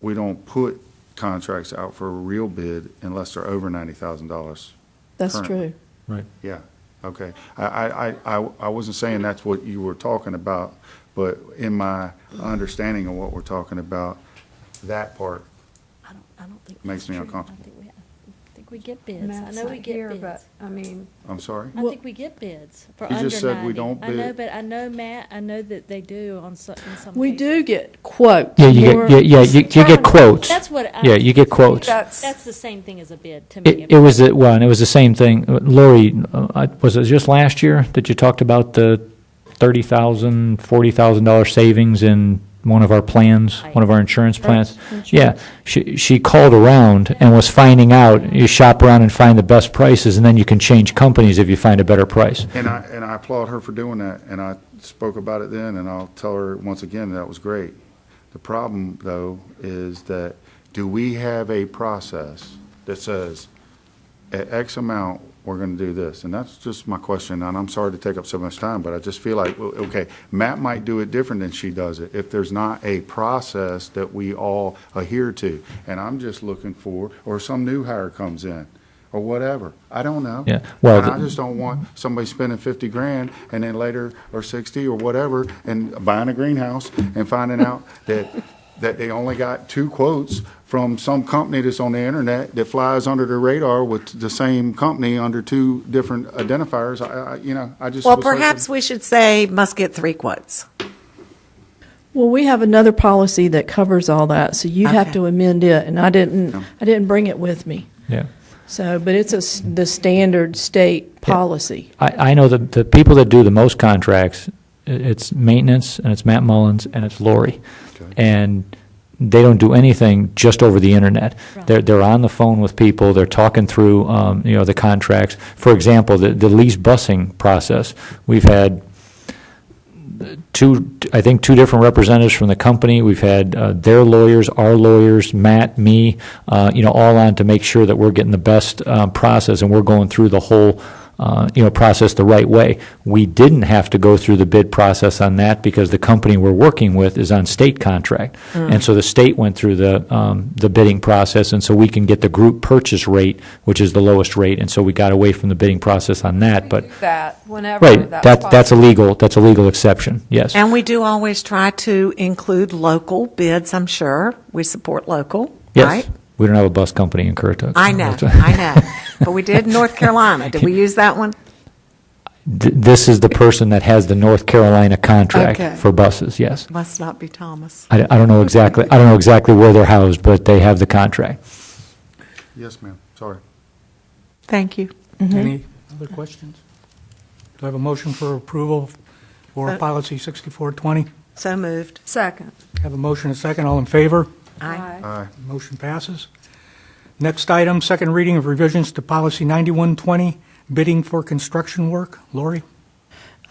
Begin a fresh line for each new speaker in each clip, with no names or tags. we don't put contracts out for a real bid unless they're over ninety thousand dollars.
That's
Currently.
true.
Right.
Yeah, okay. I, I, I- I, I wasn't saying that's what you were talking about, but in my understanding of what we're talking about, that part,
I don't, I don't think.
Makes
that's
me
true.
uncomfortable.
I think we- I think we get bids. I
Matt's
know
not
we get
here,
bids.
but, I mean,
I'm sorry?
I think we get bids for under
You
ninety.
just said we don't
I know,
bid.
but I know, Matt, I know that they do on some, in some.
We do
cases.
get quotes.
Yeah, you
more-
get, yeah, yeah, you, you get quotes.
That's what. I-
Yeah, you get quotes.
that's,
That's the same thing as a bid to me.
It, it was, the- well, and it was the same thing. Uh, Lori, uh, I- was it just last year that you talked about the thirty thousand, forty thousand dollar savings in one of our plans, one of our insurance plans? Yeah, she, she called around and was finding out, you shop around and find the best prices, and then you can change companies if you find a better price.
And I, and I applaud her for doing that, and I spoke about it then, and I'll tell her once again, that was great. The problem, though, is that do we have a process that says, at X amount, we're gonna do this? And that's just my question, and I'm sorry to take up so much time, but I just feel like, well, okay, Matt might do it different than she does it, if there's not a process that we all adhere to. And I'm just looking for, or some new hire comes in, or whatever, I don't know.
Yeah, well,
And I
the-
just don't want somebody spending fifty grand and then later, or sixty or whatever, and buying a greenhouse and finding out that, that they only got two quotes from some company that's on the internet that flies under the radar with the same company under two different identifiers. I, I, you know, I just.
Well,
was looking-
perhaps we should say must get three quotes.
Well, we have another policy that covers all that, so you have
Okay.
to amend it, and I didn't, I didn't bring it with me.
Yeah.
So, but it's a, s- the standard state policy.
I, I know that the people that do the most contracts, i- it's maintenance, and it's Matt Mullins, and it's Lori.
Okay.
And they don't do anything just over the internet. They're, they're on the phone with people, they're talking through, um, you know, the contracts. For example, the, the lease busing process, we've had two, I think, two different representatives from the company. We've had uh, their lawyers, our lawyers, Matt, me, uh, you know, all on to make sure that we're getting the best uh, process and we're going through the whole, uh, you know, process the right way. We didn't have to go through the bid process on that because the company we're working with is on state contract. And so the state went through the, um, the bidding process, and so we can get the group purchase rate, which is the lowest rate. And so we got away from the bidding process on that, but,
that, whenever
right,
that's
that, that's a
possible.
legal, that's a legal exception, yes.
And we do always try to include local bids, I'm sure. We support local, right?
Yes. We don't have a bus company in Currituck.
I know,
That's-
I know. But we did North Carolina. Did we use that one?
Th- This is the person that has the North Carolina
Okay.
contract for buses, yes.
Must not be Thomas.
I, I don't know exactly, I don't know exactly where they're housed, but they have the contract.
Yes, ma'am, sorry.
Thank you.
Any other questions? Do I have a motion for approval for
Uh,
policy 6420?
So moved.
Second.
Have a motion and a second, all in favor?
Aye.
Aye.
Motion passes. Next item, second reading of revisions to policy 9120, bidding for construction work. Lori?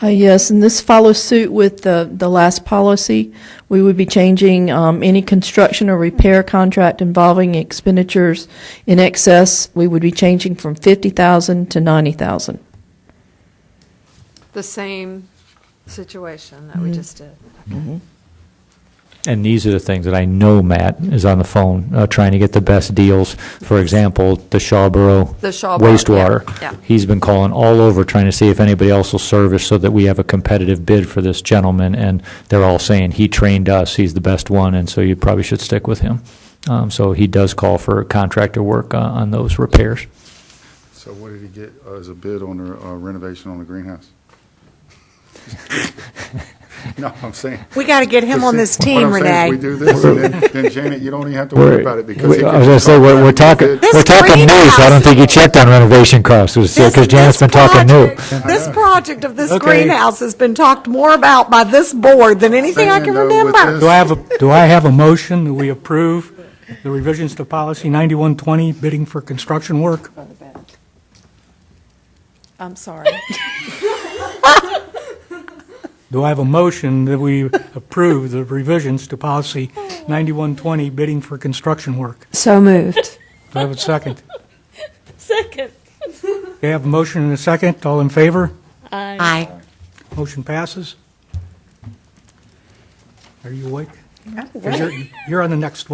Uh, yes, and this follows suit with the, the last policy. We would be changing um, any construction or repair contract involving expenditures in excess. We would be changing from fifty thousand to ninety thousand.
The same situation that we just did.
And these are the things that I know Matt is on the phone, uh, trying to get the best deals. For example, the Shawboro
The Shawboro,
wastewater.
yeah, yeah.
He's been calling all over trying to see if anybody else will service so that we have a competitive bid for this gentleman. And they're all saying, he trained us, he's the best one, and so you probably should stick with him. Um, so he does call for contractor work uh, on those repairs.
So what did he get uh, as a bid on the uh, renovation on the greenhouse? No, I'm saying.
We got to get him on this
What I'm
team,
saying is We
Renee.
do this, and then- then Janet, you don't even have to worry
We're-
about it because.
we-
he
I
can
was gonna
just
say,
come
we're,
around
we're
and do
talking,
this.
we're talking news. I don't think you checked on renovation costs,
This-
because Janet's been
this
talking new.
project- This project of this
Okay.
greenhouse has been talked more about by this board than anything I
Saying,
can
though, with
remember.
this-
Do I have, a do I have a motion that we approve the revisions to policy 9120, bidding for construction work?
I'm sorry.
Do I have a motion that we approve the revisions to policy 9120, bidding for construction work?
So moved.
Do I have a second?
Second.
Okay, I have a motion and a second. All in favor?
I
Aye.
Motion passes. Are you awake? 'Cause You're you're on the next one.